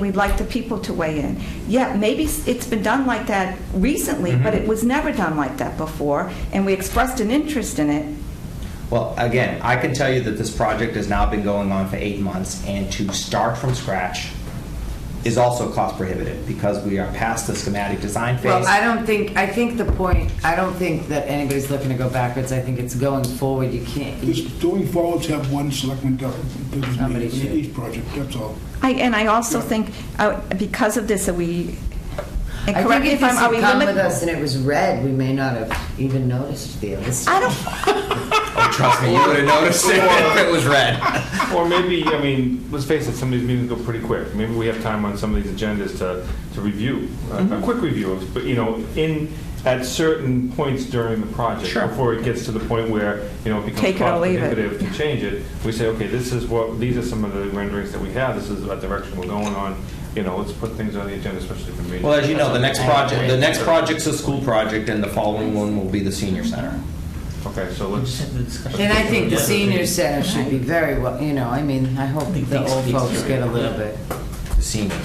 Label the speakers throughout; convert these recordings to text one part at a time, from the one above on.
Speaker 1: We'd like the people to weigh in. Yeah, maybe s- it's been done like that recently, but
Speaker 2: Mm-hmm.
Speaker 1: it was never done like that before, and we expressed an interest in it.
Speaker 3: Well, again, I can tell you that this project has now been going on for eight months, and to start from scratch is also cost prohibitive because we are past the schematic design phase.
Speaker 2: Well, I don't think, I think the point, I don't think that anybody's looking to go backwards. I think it's going forward. You can't,
Speaker 4: It's
Speaker 2: you-
Speaker 4: going forward to have one selectman do do this
Speaker 2: Somebody
Speaker 4: meeting,
Speaker 2: should.
Speaker 4: each project, that's all.
Speaker 1: I- And I also think, uh, because of this, that we, and
Speaker 2: I
Speaker 1: correct
Speaker 2: think
Speaker 1: me
Speaker 2: if
Speaker 1: if
Speaker 2: this
Speaker 1: I'm, are
Speaker 2: had
Speaker 1: we
Speaker 2: come with us
Speaker 1: limited?
Speaker 2: and it was red, we may not have even noticed the other stuff.
Speaker 1: I don't,
Speaker 3: Oh, trust me, you would have noticed it if it was red.
Speaker 5: Or maybe, I mean, let's face it, some of these meetings go pretty quick. Maybe we have time on some of these agendas to, to review, uh, a- a quick review, of- but, you know, in, at certain points during the project.
Speaker 3: Sure.
Speaker 5: Before it gets to the point where, you know, it becomes
Speaker 1: Take it or
Speaker 5: cost
Speaker 1: leave it.
Speaker 5: prohibitive to change it. We say, okay, this is what, these are some of the renderings that we have, this is the direction we're going on, you know, let's put things on the agenda, especially for meetings.
Speaker 3: Well, as you know, the next project, the next project's a school project, and the following one will be the senior center.
Speaker 5: Okay, so let's,
Speaker 2: And I think the senior center should be very well, you know, I mean, I hope the old folks get a little bit.
Speaker 3: The seniors.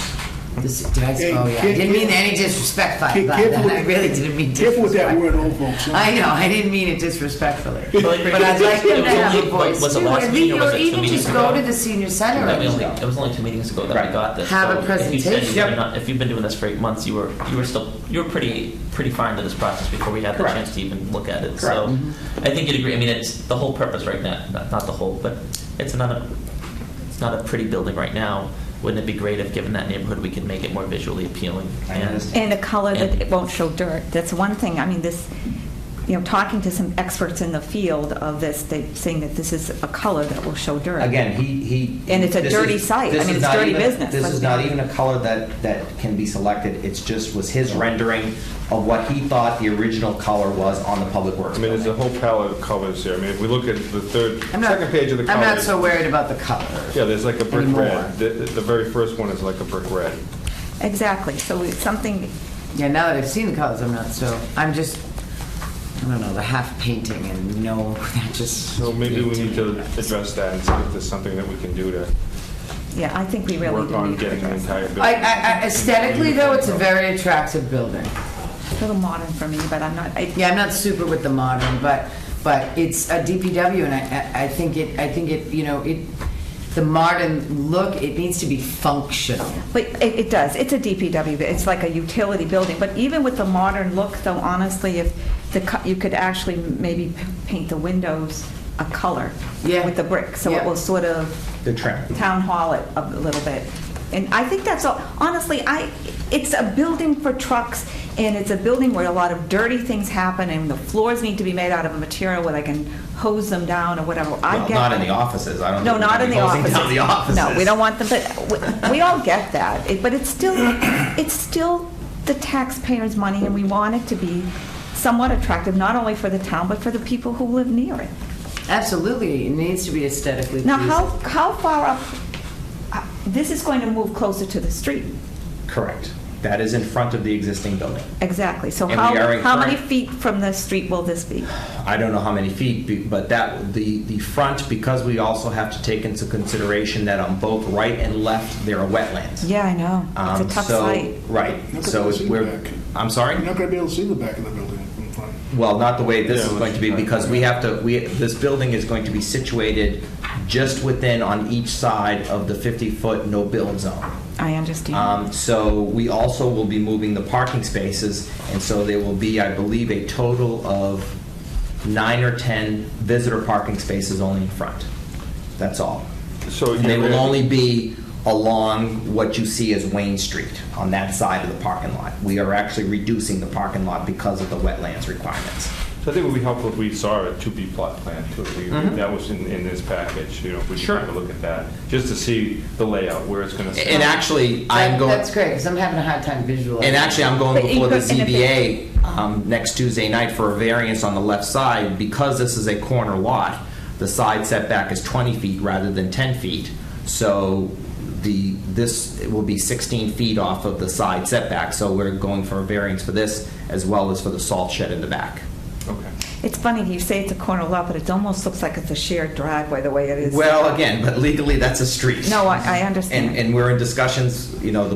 Speaker 2: this- Did I,
Speaker 4: Hey,
Speaker 2: oh yeah, I
Speaker 4: kid-
Speaker 2: didn't mean any disrespect by
Speaker 4: Be
Speaker 2: by
Speaker 4: careful
Speaker 2: that.
Speaker 4: with-
Speaker 2: I really didn't mean
Speaker 4: Careful with that
Speaker 2: disrespect.
Speaker 4: word, old folks. huh?
Speaker 2: I know, I didn't mean it disrespectfully. But I'd like them to have a voice
Speaker 6: Was it
Speaker 2: too.
Speaker 6: last
Speaker 2: and
Speaker 6: meeting or
Speaker 2: the-
Speaker 6: was
Speaker 2: Or
Speaker 6: it two
Speaker 2: even
Speaker 6: meetings
Speaker 2: just go
Speaker 6: ago?
Speaker 2: to the senior center.
Speaker 6: That we
Speaker 2: and
Speaker 6: only- It was only two meetings ago that
Speaker 3: Right.
Speaker 6: we got this.
Speaker 2: Have a
Speaker 6: so if you said
Speaker 2: presentation.
Speaker 6: you were
Speaker 3: Yep.
Speaker 6: not- If you've been doing this for eight months, you were, you were still, you were pretty, pretty fine to this process before we had the
Speaker 3: Correct.
Speaker 6: chance to even look at it.
Speaker 3: Correct.
Speaker 6: So I think you'd agree, I mean, it's the whole purpose right now, not, not the whole, but it's not a, it's not a pretty building right now. Wouldn't it be great if, given that neighborhood, we could make it more visually appealing?
Speaker 3: I
Speaker 6: and-
Speaker 3: understand.
Speaker 1: and a color that it won't show dirt. That's one thing, I mean, this, you know, talking to some experts in the field of this, they saying that this is a color that will show dirt.
Speaker 3: Again, he, he.
Speaker 1: And it's a
Speaker 3: this
Speaker 1: dirty
Speaker 3: is-
Speaker 1: site. I
Speaker 3: this
Speaker 1: mean,
Speaker 3: is
Speaker 1: it's
Speaker 3: not
Speaker 1: dirty
Speaker 3: even-
Speaker 1: business.
Speaker 3: This
Speaker 1: Let's
Speaker 3: is
Speaker 1: be
Speaker 3: not
Speaker 1: honest.
Speaker 3: even a color that, that can be selected, it's just was his rendering of what he thought the original color was on the public works
Speaker 5: I mean, there's a
Speaker 3: building.
Speaker 5: whole palette of colors here. I mean, if we look at the third,
Speaker 2: I'm not-
Speaker 5: second page of the
Speaker 2: I'm
Speaker 5: colors.
Speaker 2: not so worried about the color.
Speaker 5: Yeah, there's like a brick
Speaker 2: Anymore.
Speaker 5: red. The, the very first one is like a brick red.
Speaker 1: Exactly, so it's something,
Speaker 2: Yeah, now that I've seen the colors, I'm not so, I'm just, I don't know, the half painting and no, that just.
Speaker 5: So maybe we need to address that and see if there's something that we can do to
Speaker 1: yeah, I think we really
Speaker 5: work
Speaker 1: do
Speaker 5: on
Speaker 1: need to
Speaker 5: getting the
Speaker 1: address.
Speaker 5: entire
Speaker 2: I,
Speaker 5: building.
Speaker 2: I, I- aesthetically though, it's a very attractive building.
Speaker 1: A little modern for me, but I'm not, I-
Speaker 2: Yeah, I'm not super with the modern, but, but it's a DPW and I- I, I think it, I think it, you know, it, the modern look, it needs to be functional.
Speaker 1: But it, it does, it's a DPW, but it's like a utility building, but even with the modern look, though, honestly, if the, co- you could actually maybe p- paint the windows a color
Speaker 2: Yeah.
Speaker 1: with the brick, so it
Speaker 2: Yeah.
Speaker 1: will sort of
Speaker 3: The trim.
Speaker 1: town hall it a little bit. And I think that's all, honestly, I, it's a building for trucks, and it's a building where a lot of dirty things happen, and the floors need to be made out of a material where they can hose them down or whatever. I
Speaker 3: Well,
Speaker 1: get
Speaker 3: Not in
Speaker 1: that.
Speaker 3: the offices, I don't.
Speaker 1: No,
Speaker 3: think we're
Speaker 1: not in the
Speaker 3: gonna be
Speaker 1: offices.
Speaker 3: closing down the
Speaker 1: No, we
Speaker 3: offices.
Speaker 1: don't want them, but we- we all get that. It- But it's still, it's still the taxpayers' money, and we want it to be somewhat attractive, not only for the town, but for the people who live near it.
Speaker 2: Absolutely, it needs to be aesthetically pleasing.
Speaker 1: Now, how, how far up, uh, this is going to move closer to the street,
Speaker 3: Correct. That is in front of the existing building.
Speaker 1: exactly. So
Speaker 3: And
Speaker 1: how,
Speaker 3: we are
Speaker 1: how many
Speaker 3: encourag-
Speaker 1: feet from the street will this be?
Speaker 3: I don't know how many feet, be- but that, the, the front, because we also have to take into consideration that on both right and left, there are wetlands.
Speaker 1: Yeah, I know.
Speaker 3: Um,
Speaker 1: It's a tough
Speaker 3: so-
Speaker 1: site.
Speaker 3: Right,
Speaker 4: Look at
Speaker 3: so
Speaker 4: the
Speaker 3: it's-
Speaker 4: scene
Speaker 3: we're,
Speaker 4: back.
Speaker 3: I'm
Speaker 4: You're
Speaker 3: sorry?
Speaker 4: not gonna be able to see the back of the building from front.
Speaker 3: Well, not the way this
Speaker 5: Yeah,
Speaker 3: is
Speaker 5: which-
Speaker 3: going to be, because we have to, we, this building is going to be situated just within on each side of the 50-foot no-build zone.
Speaker 1: I understand.
Speaker 3: Um, So we also will be moving the parking spaces, and so there will be, I believe, a total of nine or 10 visitor parking spaces only in front. That's all.
Speaker 5: So
Speaker 3: And they
Speaker 5: you're-
Speaker 3: will only be along what you see as Wayne Street, on that side of the parking lot. We are actually reducing the parking lot because of the wetlands requirements.
Speaker 5: So I think it would be helpful if we saw a 2B plot plan too. if we-
Speaker 2: Mm-hmm.
Speaker 5: That was in, in this package, you know, if we could
Speaker 3: Sure.
Speaker 5: have a look at that, just to see the layout, where it's going to.
Speaker 3: And actually, I'm
Speaker 2: That-
Speaker 3: going,
Speaker 2: That's great, because I'm having a hard time visualizing.
Speaker 3: and actually, I'm
Speaker 1: But
Speaker 3: going
Speaker 1: you
Speaker 3: before the
Speaker 1: could- and if it-
Speaker 3: ZBA um, next Tuesday night for a variance on the left side. Because this is a corner lot, the side setback is 20 feet rather than 10 feet. So the, this it will be 16 feet off of the side setback. So we're going for a variance for this as well as for the salt shed in the back.
Speaker 5: Okay.
Speaker 1: It's funny, you say it's a corner lot, but it almost looks like it's a shared driveway, the way it is.
Speaker 3: Well, again, but legally, that's a street.
Speaker 1: No, I, I
Speaker 3: And,
Speaker 1: understand.
Speaker 3: and we're in discussions, you know, the